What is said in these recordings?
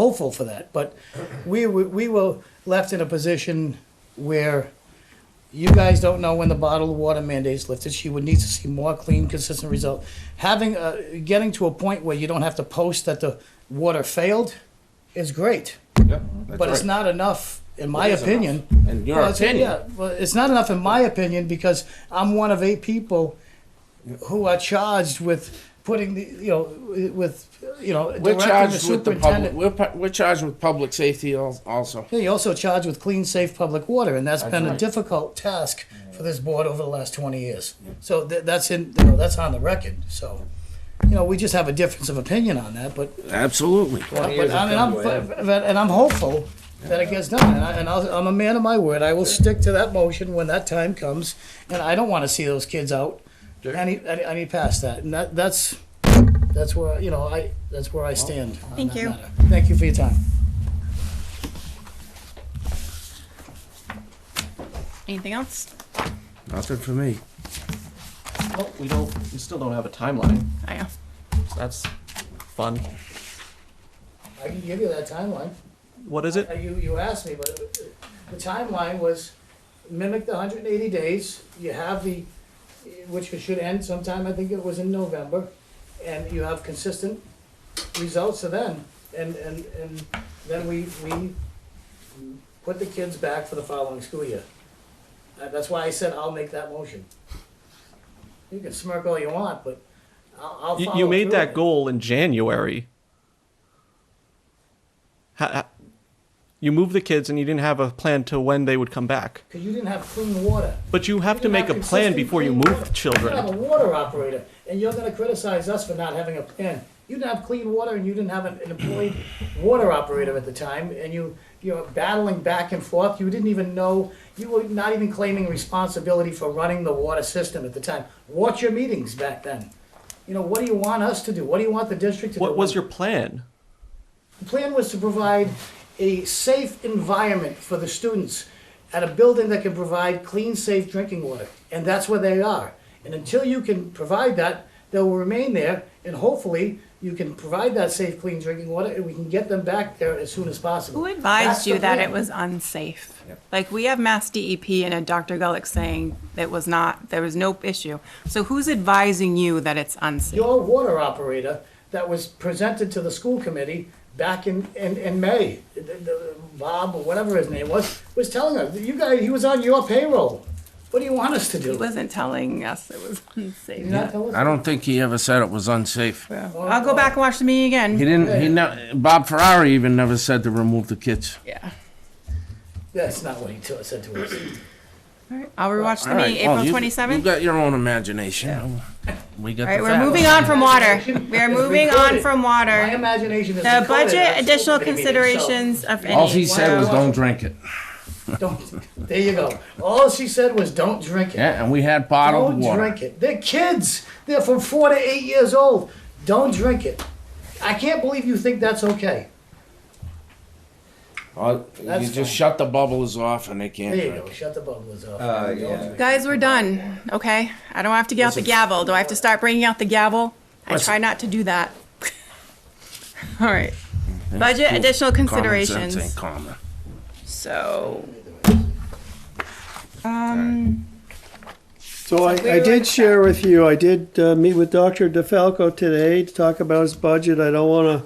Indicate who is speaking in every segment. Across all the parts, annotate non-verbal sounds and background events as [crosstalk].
Speaker 1: hopeful for that, but we, were- we were left in a position where you guys don't know when the bottled water mandate's lifted. She would need to see more clean, consistent result. Having, uh, getting to a point where you don't have to post that the water failed is great,
Speaker 2: Yep, that's
Speaker 1: but it's
Speaker 2: right.
Speaker 1: not enough, in my
Speaker 2: It is
Speaker 1: opinion.
Speaker 2: enough. In your
Speaker 1: Well, it's-
Speaker 2: opinion.
Speaker 1: Yeah, well, it's not enough in my opinion because I'm one of eight people who are charged with putting the, you know, with, you know,
Speaker 2: We're
Speaker 1: directing the
Speaker 2: charged with the public,
Speaker 1: superintendent.
Speaker 2: we're, pu- we're charged with public safety al- also.
Speaker 1: Yeah, You're also charged with clean, safe public water, and that's been a
Speaker 2: right.
Speaker 1: difficult task for this board over the last twenty years. So tha- that's in, you know, that's on the record, so, you know, we just have a difference of opinion on that, but
Speaker 2: Absolutely.
Speaker 1: But I mean, I'm, but- but- and I'm hopeful that it gets done, and I, and I'll- I'm a man of my word, I will stick to that motion when that time comes, and I don't wanna see those kids out any, any, any past that, and that, that's, that's where, you know, I, that's where I stand. on
Speaker 3: Thank
Speaker 1: that
Speaker 3: you.
Speaker 1: matter. Thank you for your time.
Speaker 3: Anything else?
Speaker 2: Nothing for me.
Speaker 4: Well, we don't. We still don't have a timeline.
Speaker 3: I uh, know.
Speaker 4: So that's fun.
Speaker 1: I can give you that timeline.
Speaker 4: What is it?
Speaker 1: Uh, You, you asked me, but the timeline was mimic the hundred and eighty days, you have the, which should end sometime, I think it was in November, and you have consistent results to then, and, and, and then we, we put the kids back for the following school year. Uh, That's why I said I'll make that motion. You can smirk all you want, but I'll, I'll
Speaker 4: You,
Speaker 1: follow
Speaker 4: you made
Speaker 1: through
Speaker 4: that
Speaker 1: with it.
Speaker 4: goal in January. Ha- ha- you moved the kids, and you didn't have a plan to when they would come back.
Speaker 1: Cause you didn't have clean water.
Speaker 4: But you have to
Speaker 1: You're
Speaker 4: make a
Speaker 1: not
Speaker 4: plan
Speaker 1: consistent
Speaker 4: before you
Speaker 1: clean
Speaker 4: move
Speaker 1: water.
Speaker 4: the
Speaker 1: You have a
Speaker 4: children.
Speaker 1: water operator, and you're gonna criticize us for not having a plan. You didn't have clean water, and you didn't have an an employed water operator at the time, and you, you're battling back and forth. You didn't even know, you were not even claiming responsibility for running the water system at the time. Watch your meetings back then. You know, what do you want us to do? What do you want the district to do?
Speaker 4: What was your plan?
Speaker 1: The plan was to provide a safe environment for the students at a building that can provide clean, safe drinking water. And that's where they are. And until you can provide that, they'll remain there. And hopefully, you can provide that safe, clean drinking water and we can get them back there as soon as possible.
Speaker 3: Who
Speaker 1: That's
Speaker 3: advised
Speaker 1: the
Speaker 3: you that
Speaker 1: plan.
Speaker 3: it was unsafe? Like, we have Mass DEP and a Dr. Gulick saying that was not, there was no issue. So who's advising you that it's unsafe?
Speaker 1: Your water operator that was presented to the school committee back in, in, in May, The- the- Bob, or whatever his name was, was telling us, you guys, he was on your payroll. What do you want us to
Speaker 3: He
Speaker 1: do?
Speaker 3: wasn't telling us it was [laughs] unsafe.
Speaker 1: You're not telling us?
Speaker 2: I don't think he ever said it was unsafe.
Speaker 3: I'll go back and watch the meeting
Speaker 2: He
Speaker 3: again.
Speaker 2: didn't, he ne- Bob Ferrari even never said to remove the kids.
Speaker 3: Yeah.
Speaker 1: That's not what he t- said to us.
Speaker 3: All right, I'll rewatch the
Speaker 2: All right,
Speaker 3: meeting,
Speaker 2: well,
Speaker 3: April
Speaker 2: you-
Speaker 3: twenty-seventh.
Speaker 2: You got your own imagination. We got
Speaker 3: All right,
Speaker 2: the
Speaker 3: we're moving
Speaker 2: facts.
Speaker 3: on
Speaker 2: [laughs]
Speaker 3: from water. We are
Speaker 1: It's
Speaker 3: moving on
Speaker 1: recorded.
Speaker 3: from
Speaker 1: My
Speaker 3: water.
Speaker 1: imagination is. recorded
Speaker 3: The
Speaker 1: at
Speaker 3: Uh, budget
Speaker 1: school
Speaker 3: additional
Speaker 1: committee meetings, so
Speaker 3: considerations of any.
Speaker 2: All he said was
Speaker 3: So-
Speaker 2: don't drink it.
Speaker 1: Don't, there you go. All she said was, don't drink it.
Speaker 2: Yeah, and we had bottled
Speaker 1: Don't
Speaker 2: water.
Speaker 1: drink it. They're kids. They're from four to eight years old. Don't drink it. I can't believe you think that's okay.
Speaker 2: Oh, You
Speaker 1: That's fine.
Speaker 2: just shut the bubbles off and they can't
Speaker 1: There you
Speaker 2: drink.
Speaker 1: go. Shut the bubbles off.
Speaker 5: Uh,
Speaker 1: Don't
Speaker 5: yeah.
Speaker 1: drink it.
Speaker 3: Guys, we're done, okay? I don't have to get out the gavel. Do I have to start bringing out the gavel? I try not to do that. [laughs] All right. Budget additional
Speaker 2: Common sense ain't
Speaker 3: considerations.
Speaker 2: common.
Speaker 3: So, um,
Speaker 6: So I, I did share with you, I did uh, meet with Dr. DeFalco today to talk about his budget. I don't wanna,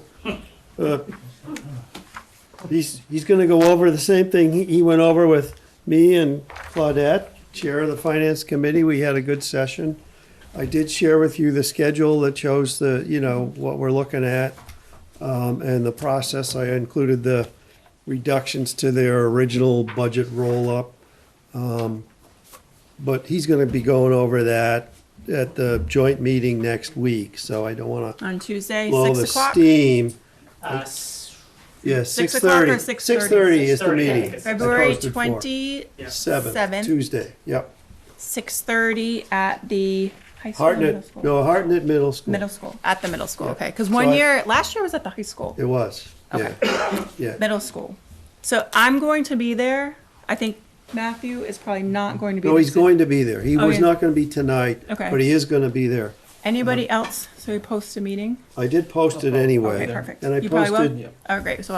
Speaker 6: uh, he's, he's gonna go over the same thing he- he went over with me and Claudette, Chair of the Finance Committee. We had a good session. I did share with you the schedule that shows the, you know, what we're looking at, um, and the process. I included the reductions to their original budget roll-up. But he's gonna be going over that at the joint meeting next week, so I don't wanna
Speaker 3: on Tuesday,
Speaker 6: blow the
Speaker 3: six o'clock,
Speaker 6: steam.
Speaker 1: Uh, s-
Speaker 6: Yeah,
Speaker 3: Six
Speaker 6: six
Speaker 3: o'clock or
Speaker 6: thirty.
Speaker 3: 6:30?
Speaker 6: Six thirty is the
Speaker 1: 6:30, I
Speaker 6: meeting.
Speaker 1: think it's-
Speaker 6: I
Speaker 3: February
Speaker 6: posted for.
Speaker 3: Seventh.
Speaker 6: Seventh, Tuesday, yep.
Speaker 3: 26:30 at the high school. or middle
Speaker 6: Hartnett,
Speaker 3: school?
Speaker 6: no, Hartnett Middle School.
Speaker 3: Middle school, at the middle school,
Speaker 6: Yeah.
Speaker 3: okay? Because
Speaker 6: So
Speaker 3: one
Speaker 6: I-
Speaker 3: year, last year was at the high school.
Speaker 6: It was, yeah, yeah.
Speaker 3: middle school. So I'm going to be there. I think Matthew is probably not going to be.
Speaker 6: No,
Speaker 3: there.
Speaker 6: he's going to be there. He
Speaker 3: Oh,
Speaker 6: was
Speaker 3: yeah.
Speaker 6: not gonna be tonight,
Speaker 3: Okay.
Speaker 6: but he is gonna be there. Uh-huh.
Speaker 3: Anybody else? So we post a meeting.
Speaker 6: I did post it anyway.
Speaker 3: Okay, perfect.
Speaker 6: And I
Speaker 3: You probably will?
Speaker 6: posted
Speaker 3: Oh, great. So